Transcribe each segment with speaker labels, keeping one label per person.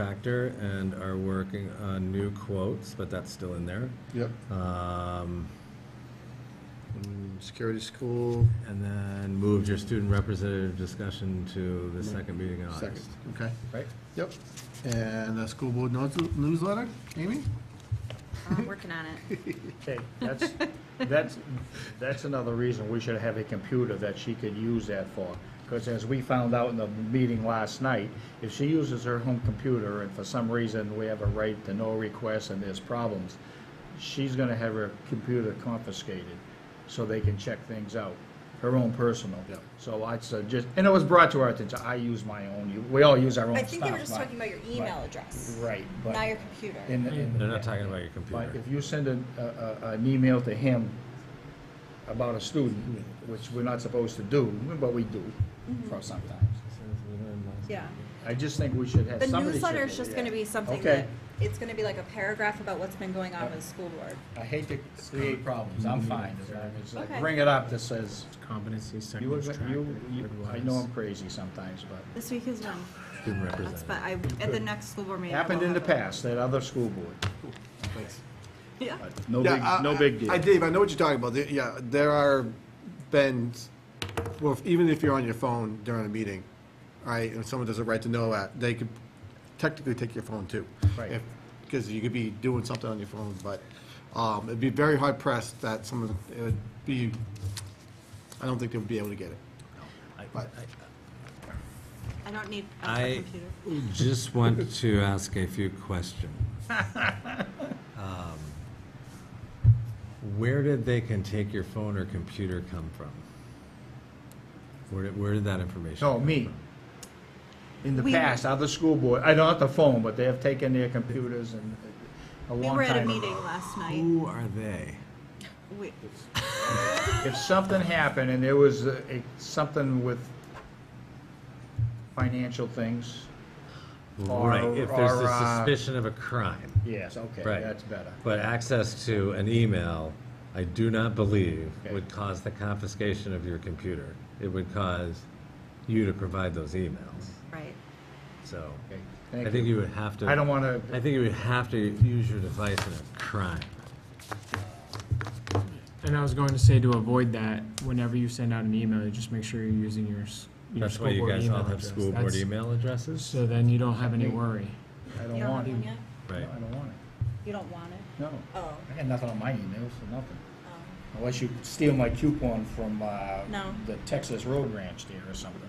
Speaker 1: contractor and are working on new quotes, but that's still in there.
Speaker 2: Yep.
Speaker 1: Um,
Speaker 2: Mm, Security school,
Speaker 1: And then moved your student representative discussion to the second meeting in
Speaker 2: second,
Speaker 1: August.
Speaker 2: okay,
Speaker 1: Right?
Speaker 2: yep. And the school board notes- newsletter, Amy?
Speaker 3: I'm working on it.
Speaker 4: Okay, that's, that's, that's another reason we should have a computer that she could use that for. Because as we found out in the meeting last night, if she uses her home computer and for some reason we have a right to no request and there's problems, she's gonna have her computer confiscated so they can check things out, her own personal.
Speaker 2: Yeah.
Speaker 4: So I suggest, and it was brought to our attention, I use my own, you- we all use our own
Speaker 5: I
Speaker 4: stuff.
Speaker 5: think they were just
Speaker 4: but-
Speaker 5: talking about your email address,
Speaker 4: Right, but.
Speaker 5: not your computer.
Speaker 4: in- in-
Speaker 1: They're not talking about your
Speaker 4: but
Speaker 1: computer.
Speaker 4: if you send an, a- a- an email to him about a student, which we're not supposed to do, but we do
Speaker 3: Mm-hmm.
Speaker 4: for sometimes.
Speaker 5: Yeah.
Speaker 4: I just think we should have
Speaker 5: The
Speaker 4: somebody. should
Speaker 5: newsletter
Speaker 4: do
Speaker 5: is just
Speaker 4: that.
Speaker 5: gonna be something
Speaker 4: Okay.
Speaker 5: that, it's gonna be like a paragraph about what's been going on with the school board.
Speaker 4: I hate to create problems,
Speaker 2: Mm-hmm.
Speaker 4: I'm fine. as long as I
Speaker 5: Okay.
Speaker 4: Bring it up that says,
Speaker 6: competencies,
Speaker 4: you,
Speaker 6: technical track.
Speaker 4: you, you, I know I'm crazy sometimes, but
Speaker 3: This week is one.
Speaker 1: Student
Speaker 3: That's,
Speaker 1: representative.
Speaker 3: but I, at the next school board meeting. I
Speaker 4: happened
Speaker 3: will
Speaker 4: in the
Speaker 3: have it.
Speaker 4: past, that other school board,
Speaker 3: Yeah.
Speaker 4: but no
Speaker 2: Yeah,
Speaker 4: big,
Speaker 2: I-
Speaker 4: no
Speaker 2: I-
Speaker 4: big
Speaker 2: I,
Speaker 4: deal.
Speaker 2: Dave, I know what you're talking about. There- Yeah, there are been, well, if- even if you're on your phone during a meeting, all right, and someone does a right to know act, they could technically take your phone too.
Speaker 4: Right.
Speaker 2: Because you could be doing something on your phone, but um, it'd be very hard pressed that someone, it would be, I don't think they would be able to get it. But
Speaker 3: I don't need a
Speaker 1: I
Speaker 3: computer.
Speaker 1: just want to ask a few questions. Um, Where did they can take your phone or computer come from? Where did, where did that information?
Speaker 4: No, Oh, me. In the
Speaker 3: We-
Speaker 4: past, other school board, I don't have the phone, but they have taken their computers and uh, a long
Speaker 3: We
Speaker 4: time.
Speaker 3: were at a
Speaker 4: ago.
Speaker 3: meeting last night.
Speaker 1: Who are they?
Speaker 3: We-
Speaker 4: If something happened and there was a, a- something with financial things, Or-
Speaker 1: Right, if there's
Speaker 4: or,
Speaker 1: a
Speaker 4: uh,
Speaker 1: suspicion of a crime.
Speaker 4: yes, okay,
Speaker 1: Right.
Speaker 4: that's better.
Speaker 1: But access to an email, I do not believe
Speaker 4: Okay.
Speaker 1: would cause the confiscation of your computer. It would cause you to provide those emails,
Speaker 3: Right.
Speaker 1: so.
Speaker 4: Okay,
Speaker 1: I
Speaker 4: Thank
Speaker 1: think you
Speaker 4: you.
Speaker 1: would have to.
Speaker 4: I don't want to,
Speaker 1: I think you would have to use your device in a crime.
Speaker 6: And I was going to say to avoid that, whenever you send out an email, you just make sure you're using your, s- your
Speaker 1: That's
Speaker 6: school
Speaker 1: why you
Speaker 6: board
Speaker 1: guys
Speaker 6: email
Speaker 1: all have
Speaker 6: address.
Speaker 1: school board
Speaker 6: That's-
Speaker 1: email addresses?
Speaker 6: So then you don't have any worry.
Speaker 4: I
Speaker 5: You
Speaker 4: don't
Speaker 5: don't
Speaker 4: want
Speaker 5: have
Speaker 4: it.
Speaker 5: one yet?
Speaker 4: No,
Speaker 1: Right.
Speaker 4: I don't want it.
Speaker 5: You don't want it?
Speaker 4: No,
Speaker 5: Oh,
Speaker 4: I got nothing on my emails for nothing.
Speaker 5: oh,
Speaker 4: Unless you steal my coupon from, uh,
Speaker 5: No.
Speaker 4: the Texas Road Ranch there or something.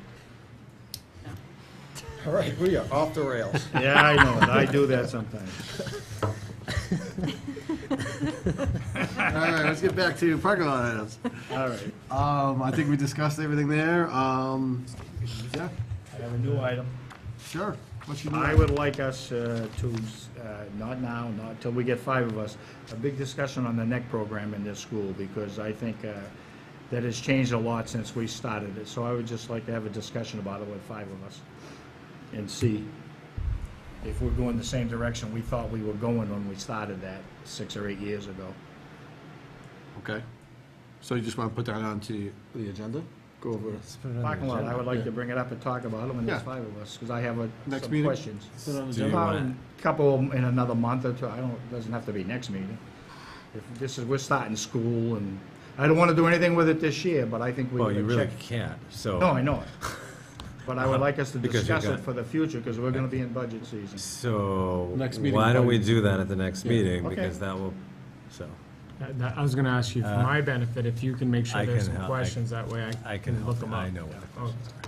Speaker 2: All right, we are off the rails.
Speaker 4: Yeah, I know, I do that sometimes.
Speaker 2: All right, let's get back to parking lot items.
Speaker 4: All right,
Speaker 2: Um, I think we discussed everything there. Um, yeah,
Speaker 4: I have a new item.
Speaker 2: sure. What's your new
Speaker 4: I
Speaker 2: item?
Speaker 4: would like us uh, to, uh, not now, not till we get five of us, a big discussion on the neck program in this school, because I think uh, that has changed a lot since we started it. So I would just like to have a discussion about it with five of us and see if we're going the same direction we thought we were going when we started that six or eight years ago.
Speaker 2: Okay. So you just want to put that onto the agenda? Go over,
Speaker 1: Let's put it on the
Speaker 4: Parking lot, I
Speaker 1: agenda.
Speaker 4: would like to bring it up and talk about it when there's
Speaker 2: Yeah.
Speaker 4: five of us, because I have a-
Speaker 2: Next
Speaker 4: some
Speaker 2: meeting?
Speaker 4: questions.
Speaker 1: Do you
Speaker 4: About
Speaker 1: wanna-
Speaker 4: a Couple in another month or two, I don't, doesn't have to be next meeting. If this is, we're starting school and, I don't wanna do anything with it this year, but I think we
Speaker 1: Well, Oh, you
Speaker 4: need to
Speaker 1: really
Speaker 4: check.
Speaker 1: can't, so.
Speaker 4: No, I know it. But I would like us to
Speaker 1: Because you've
Speaker 4: discuss it
Speaker 1: got-
Speaker 4: for the future, cause we're gonna be in budget season.
Speaker 1: So,
Speaker 2: Next meeting,
Speaker 1: why don't we
Speaker 2: budget.
Speaker 1: do that at the next meeting,
Speaker 4: okay.
Speaker 1: because that will, so,
Speaker 6: That- that- I was gonna ask you, for
Speaker 1: Uh,
Speaker 6: my benefit, if you can make
Speaker 1: I
Speaker 6: sure there's
Speaker 1: can
Speaker 6: some
Speaker 1: help. I-
Speaker 6: questions, that way
Speaker 1: I
Speaker 6: I
Speaker 1: can
Speaker 6: can look
Speaker 1: help,
Speaker 6: them up.
Speaker 1: I know what the
Speaker 6: Oh,
Speaker 1: questions are.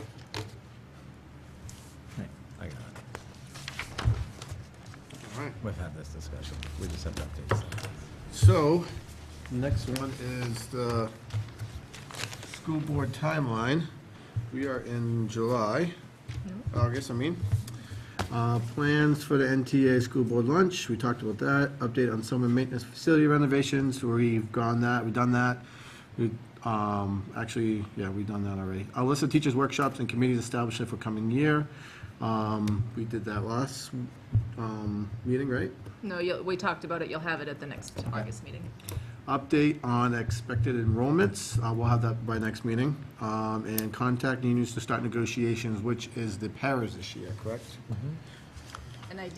Speaker 1: I got it.
Speaker 2: all right.
Speaker 1: We've had this discussion. We just have to update something.
Speaker 2: So, next one is the school board timeline. We are in July, August, I mean. Uh, Plans for the NTA school board lunch, we talked about that. Update on summer maintenance facility renovations, we've gone that, we've done that. We, um, actually, yeah, we've done that already. A list of teachers' workshops and committees established for coming year. Um, We did that last um, meeting, right?
Speaker 7: No, you'll, we talked about it, you'll have it at the next August meeting.
Speaker 2: Update on expected enrollments, uh, we'll have that by next meeting, um, and contact unions to start negotiations, which is the paras this year, correct?
Speaker 7: And I